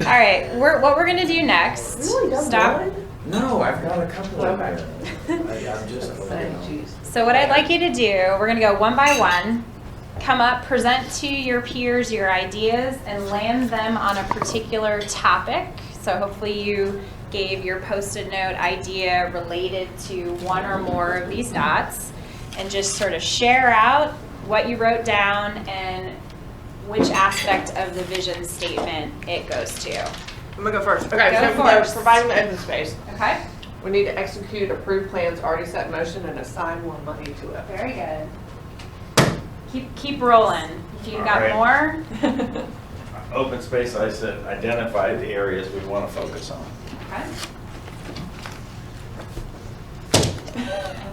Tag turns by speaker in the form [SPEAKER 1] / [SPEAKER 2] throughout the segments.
[SPEAKER 1] right, we're, what we're gonna do next?
[SPEAKER 2] Really, that's
[SPEAKER 1] Stop.
[SPEAKER 2] good?
[SPEAKER 3] No, I've got a couple of
[SPEAKER 2] Okay.
[SPEAKER 3] them. I- I'm just, you
[SPEAKER 2] Say,
[SPEAKER 3] know.
[SPEAKER 2] geez.
[SPEAKER 1] So what I'd like you to do, we're gonna go one by one. Come up, present to your peers your ideas, and land them on a particular topic. So hopefully you gave your post-it note idea related to one or more of these dots, and just sort of share out what you wrote down and which aspect of the vision statement it goes to.
[SPEAKER 2] I'm gonna go first. Okay,
[SPEAKER 1] Go
[SPEAKER 2] so we're
[SPEAKER 1] first.
[SPEAKER 2] providing the open space.
[SPEAKER 1] Okay?
[SPEAKER 2] We need to execute approved plans already set in motion and assign more money to it.
[SPEAKER 1] Very good. Keep, keep rolling. If you've got
[SPEAKER 4] All
[SPEAKER 1] more,
[SPEAKER 4] Open space, I said, identify the areas we want to focus on.
[SPEAKER 1] okay.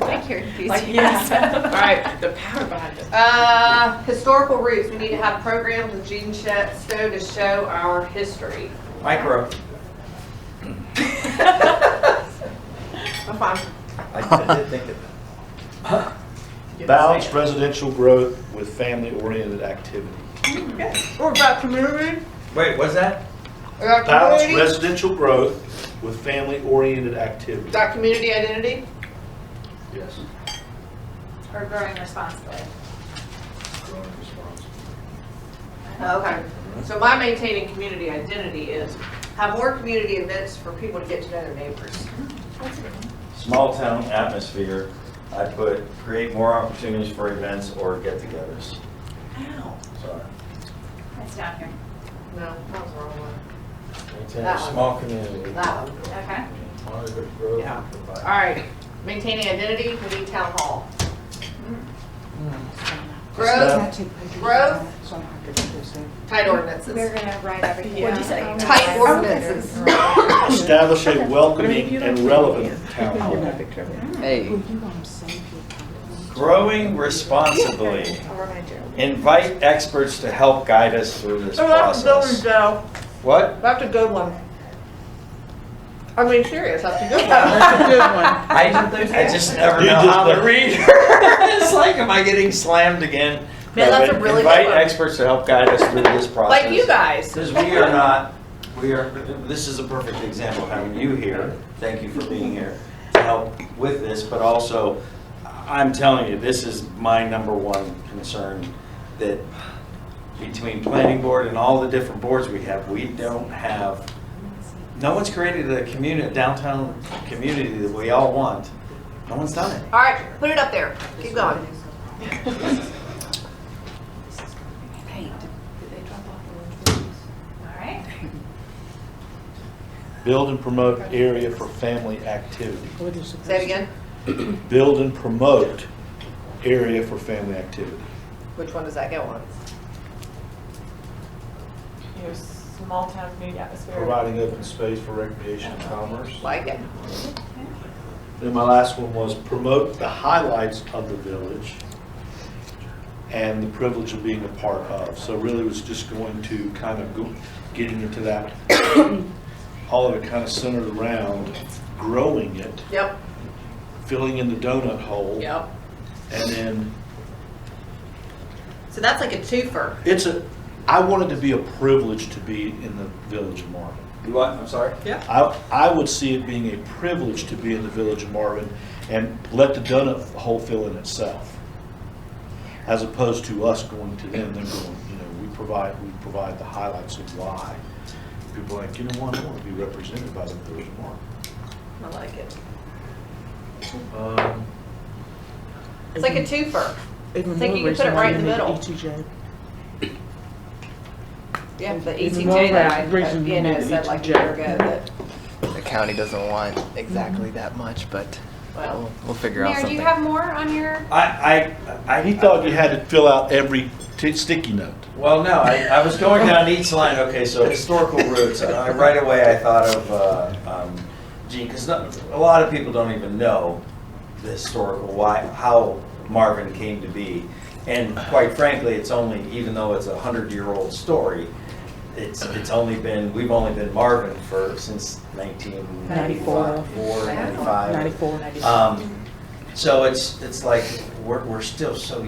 [SPEAKER 1] I like your
[SPEAKER 5] Like, yeah.
[SPEAKER 1] enthusiasm.
[SPEAKER 2] All right, the power behind it. Uh, historical roots, we need to have programs with Gene Shet- Stowe to show our history.
[SPEAKER 3] Micro.
[SPEAKER 2] I'm fine.
[SPEAKER 3] I did think of that.
[SPEAKER 4] Balanced residential growth with family-oriented activity.
[SPEAKER 2] What about community?
[SPEAKER 3] Wait, what's that?
[SPEAKER 2] We got
[SPEAKER 4] Balanced
[SPEAKER 2] community?
[SPEAKER 4] residential growth with family-oriented activity.
[SPEAKER 2] Got community identity?
[SPEAKER 4] Yes.
[SPEAKER 1] Or growing responsibly.
[SPEAKER 2] Okay, so my maintaining community identity is have more community events for people to get to know their neighbors.
[SPEAKER 4] Small-town atmosphere, I put, create more opportunities for events or get-togethers.
[SPEAKER 2] Ow.
[SPEAKER 4] Sorry.
[SPEAKER 1] It's down here.
[SPEAKER 2] No, that was the wrong one.
[SPEAKER 3] Maintain
[SPEAKER 2] That one. small
[SPEAKER 3] community.
[SPEAKER 2] That one.
[SPEAKER 1] Okay.
[SPEAKER 2] Yeah. All right, maintaining identity, we need town hall. Growth, growth, tight
[SPEAKER 5] We're
[SPEAKER 2] ordinances.
[SPEAKER 5] gonna write everything. What'd you say?
[SPEAKER 2] Tight ordinances.
[SPEAKER 4] Establish a welcoming and relevant town hall.
[SPEAKER 6] Hey,
[SPEAKER 4] Growing responsibly. Invite experts to help guide us through this process.
[SPEAKER 2] Joe.
[SPEAKER 4] What?
[SPEAKER 2] That's a good one. I mean, serious, that's a good one. That's a good one.
[SPEAKER 3] I, I just never know how to read her. It's like, am I getting slammed again?
[SPEAKER 2] Man, that's a
[SPEAKER 4] But
[SPEAKER 2] really
[SPEAKER 4] Invite
[SPEAKER 2] good one.
[SPEAKER 4] experts to help guide us through this process.
[SPEAKER 2] Like you guys.
[SPEAKER 4] Because
[SPEAKER 3] We are not, we are, this is a perfect example of having you here.
[SPEAKER 4] Thank you for being here to help with this, but also, I'm telling you, this is my number one concern, that between planning board and all the different boards we have, we don't have, no one's created a community, downtown community that we all want. No one's done it.
[SPEAKER 2] All right, put it up there. Keep going.
[SPEAKER 1] All right.
[SPEAKER 4] Build and promote area for family activity.
[SPEAKER 2] Say it again.
[SPEAKER 4] Build and promote area for family activity.
[SPEAKER 2] Which one does that go on?
[SPEAKER 7] Your small town community atmosphere.
[SPEAKER 4] Providing open space for recreation and commerce.
[SPEAKER 2] Like it.
[SPEAKER 4] Then my last one was promote the highlights of the village and the privilege of being a part of. So really was just going to kind of go, getting into that, all of it kind of centered around growing it,
[SPEAKER 2] Yep.
[SPEAKER 4] filling in the donut hole.
[SPEAKER 2] Yep.
[SPEAKER 4] And then,
[SPEAKER 2] So that's like a twofer.
[SPEAKER 4] it's a, I wanted to be a privilege to be in the village of Marvin.
[SPEAKER 3] You what, I'm sorry?
[SPEAKER 4] I, I would see it being a privilege to be in the village of Marvin and let the donut hole fill in itself. As opposed to us going to them, them going, you know, we provide, we provide the highlights of why. People are like, you know what, I want to be represented by the village of Marvin.
[SPEAKER 2] I like it.
[SPEAKER 4] Um,
[SPEAKER 2] It's like a twofer.
[SPEAKER 6] it's
[SPEAKER 2] like you can put it right in the middle. Yeah, the ETJ that I, uh, you know, said like a year ago that,
[SPEAKER 6] the county doesn't want exactly that much, but
[SPEAKER 2] well,
[SPEAKER 6] we'll, we'll figure out
[SPEAKER 1] Mayor, do
[SPEAKER 6] something.
[SPEAKER 1] you have more on your?
[SPEAKER 3] I, I, I.
[SPEAKER 4] He thought you had to fill out every t- sticky note.
[SPEAKER 3] Well, no, I, I was going down each line, okay, so historical roots, and I, right away I thought of, uh, um, Gene, because a lot of people don't even know the historical, why, how Marvin came to be. And quite frankly, it's only, even though it's a hundred-year-old story, it's, it's only been, we've only been Marvin for, since nineteen ninety-four, Um, ninety-five. Ninety-four. Um, so it's, it's like, we're, we're still so young.